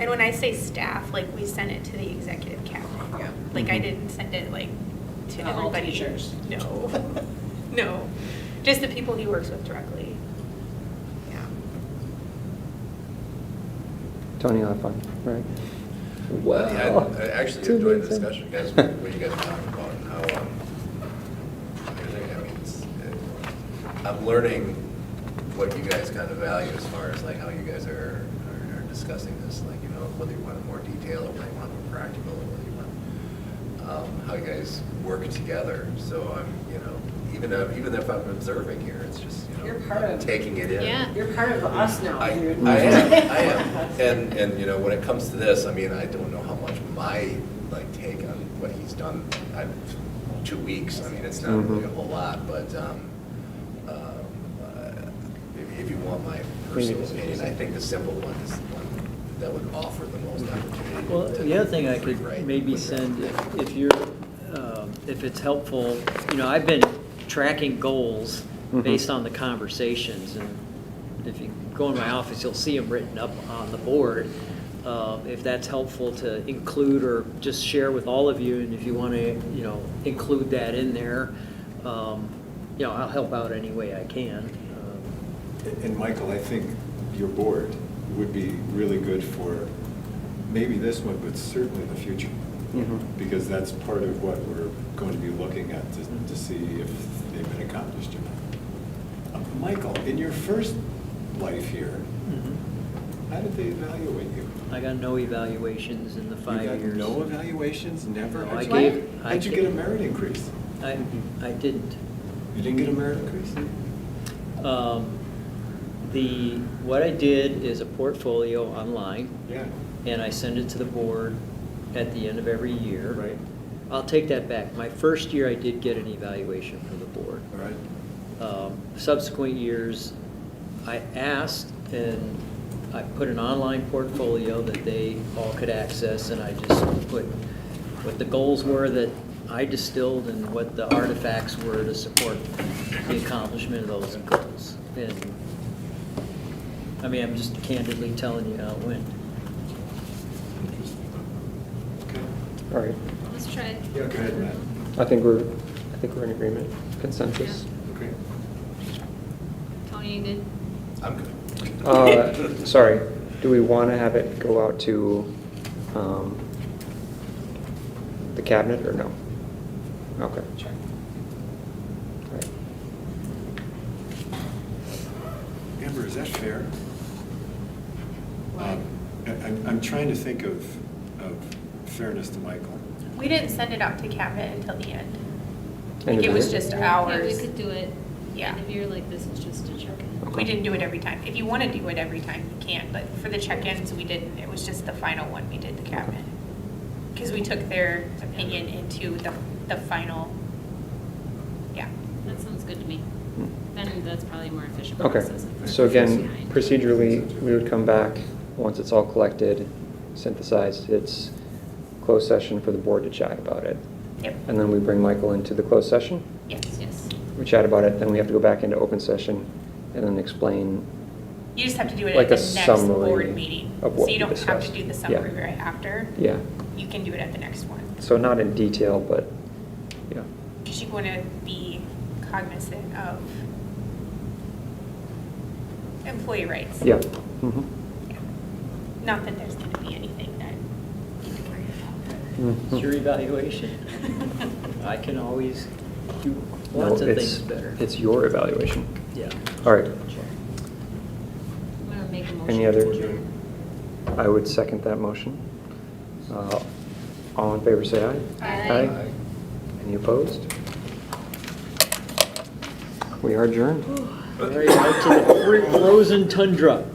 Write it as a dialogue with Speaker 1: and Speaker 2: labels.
Speaker 1: And when I say staff, like, we sent it to the executive cabinet.
Speaker 2: Yeah.
Speaker 1: Like,
Speaker 3: Mm-hmm.
Speaker 1: I didn't send it, like, to
Speaker 2: To all
Speaker 1: everybody.
Speaker 2: teachers.
Speaker 1: No, no, just the people he works with directly. Yeah.
Speaker 4: Tony, you'll have fun, right?
Speaker 5: Well, I I actually
Speaker 4: Oh. Two
Speaker 5: enjoyed the
Speaker 4: minutes in.
Speaker 5: discussion, guys, what you guys were talking about, and how, um, everything, I mean, it's, it- I'm learning what you guys kind of value as far as like how you guys are, are- are discussing this, like, you know, whether you want more detail, or whether you want more practical, or whether you want, um, how you guys work together, so I'm, you know, even if, even if I'm observing here, it's just, you know.
Speaker 2: You're part of-
Speaker 5: Taking it in.
Speaker 1: Yeah.
Speaker 2: You're part of us now.
Speaker 5: I, I
Speaker 2: You're-
Speaker 5: am, I am. And, and, you know, when it comes to this, I mean, I don't know how much my, like, take on what he's done, I've, two weeks, I mean, it's not really a whole lot, but, um, um, uh, if- if you want my personal opinion, I think the simple one is the one that would offer the most opportunity.
Speaker 6: Well,
Speaker 5: to
Speaker 6: the other thing I could
Speaker 5: rewrite
Speaker 6: maybe
Speaker 5: what they're
Speaker 6: send, if-
Speaker 5: thinking.
Speaker 6: if you're, um, if it's helpful, you know, I've been tracking goals
Speaker 4: Mhm.
Speaker 6: based on the conversations, and if you go in my office, you'll see them written up on the board. Uh, If that's helpful to include or just share with all of you, and if you want to, you know, include that in there, um, you know, I'll help out any way I can. Um,
Speaker 7: And Michael, I think your board would be really good for maybe this one, but certainly the future.
Speaker 4: Mhm.
Speaker 5: Mm-hmm.
Speaker 7: Because that's part of what we're going to be looking at to, to see if they've been accomplished or not. Uh, Michael, in your first life here, Mm-hmm. how did they evaluate you?
Speaker 6: I got no evaluations in the five years.
Speaker 7: You got no evaluations, never?
Speaker 6: No,
Speaker 7: How'd
Speaker 6: I
Speaker 7: you-
Speaker 6: gave- I
Speaker 7: How'd you get a
Speaker 6: gave-
Speaker 7: merit increase?
Speaker 6: I, I didn't.
Speaker 7: You didn't get a merit increase?
Speaker 6: Um, The, what I did is a portfolio online,
Speaker 7: Yeah,
Speaker 6: and I send it to the board at the end of every year.
Speaker 7: Right.
Speaker 6: I'll take that back. My first year, I did get an evaluation from the board.
Speaker 7: all right.
Speaker 6: Um, Subsequent years, I asked, and I put an online portfolio that they all could access, and I just put what the goals were that I distilled and what the artifacts were to support the accomplishment of those goals. And, I mean, I'm just candidly telling you how it went.
Speaker 7: Interesting. Okay.
Speaker 4: All right,
Speaker 3: Let's try it.
Speaker 7: Yeah, go ahead, Matt.
Speaker 4: I think we're, I think we're in agreement, consensus.
Speaker 7: Okay.
Speaker 3: Tony, you good?
Speaker 5: I'm good.
Speaker 4: Uh, Sorry, do we want to have it go out to um, the cabinet or no? Okay. Sure.
Speaker 7: Amber, is that fair?
Speaker 1: What?
Speaker 7: Um, I- I'm, I'm trying to think of, of fairness to Michael.
Speaker 1: We didn't send it out to cabinet until the end.
Speaker 4: End
Speaker 1: Like,
Speaker 4: of
Speaker 1: it was
Speaker 4: year?
Speaker 1: just
Speaker 3: Yeah,
Speaker 1: ours.
Speaker 3: we could do it.
Speaker 1: Yeah.
Speaker 3: If you're like, this is just a check-in.
Speaker 1: We didn't do it every time. If you want to do it every time, you can, but for the check-ins, we didn't. It was just the final one we did, the cabinet. Because we took their opinion into the, the final, yeah.
Speaker 3: That sounds good to me. Then that's probably a more efficient
Speaker 4: Okay,
Speaker 3: process. if we're
Speaker 4: so again,
Speaker 3: behind.
Speaker 4: procedurally, we would come back, once it's all collected, synthesized, it's closed session for the board to chat about it.
Speaker 1: Yep,
Speaker 4: And then we bring Michael into the closed session,
Speaker 1: yes.
Speaker 3: Yes.
Speaker 4: we chat about it, then we have to go back into open session and then explain,
Speaker 1: You just have to do it
Speaker 4: Like
Speaker 1: at the
Speaker 4: a
Speaker 1: next
Speaker 4: summary
Speaker 1: board meeting.
Speaker 4: of
Speaker 1: So
Speaker 4: what
Speaker 1: you
Speaker 4: we
Speaker 1: don't have to
Speaker 4: discussed.
Speaker 1: do the
Speaker 4: Yeah.
Speaker 1: summary right after.
Speaker 4: yeah.
Speaker 1: You can do it at the next one.
Speaker 4: So not in detail, but, yeah.
Speaker 1: Because you want to be cognizant of employee rights.
Speaker 4: Yeah. Mhm.
Speaker 1: Yeah. Not that there's going to be anything that you can worry
Speaker 6: It's your
Speaker 4: Mhm.
Speaker 6: evaluation.
Speaker 1: about.
Speaker 6: I can always do
Speaker 4: No,
Speaker 6: lots of
Speaker 4: it's-
Speaker 6: things better.
Speaker 4: It's your evaluation.
Speaker 6: Yeah.
Speaker 4: All right,
Speaker 3: I'm gonna make a motion.
Speaker 4: any
Speaker 3: to
Speaker 4: other?
Speaker 3: adjourn.
Speaker 4: I would second that motion. Uh, All in favor, say aye.
Speaker 3: Aye.
Speaker 4: Aye. Any opposed? We are adjourned.
Speaker 6: Right out to the frozen tundra.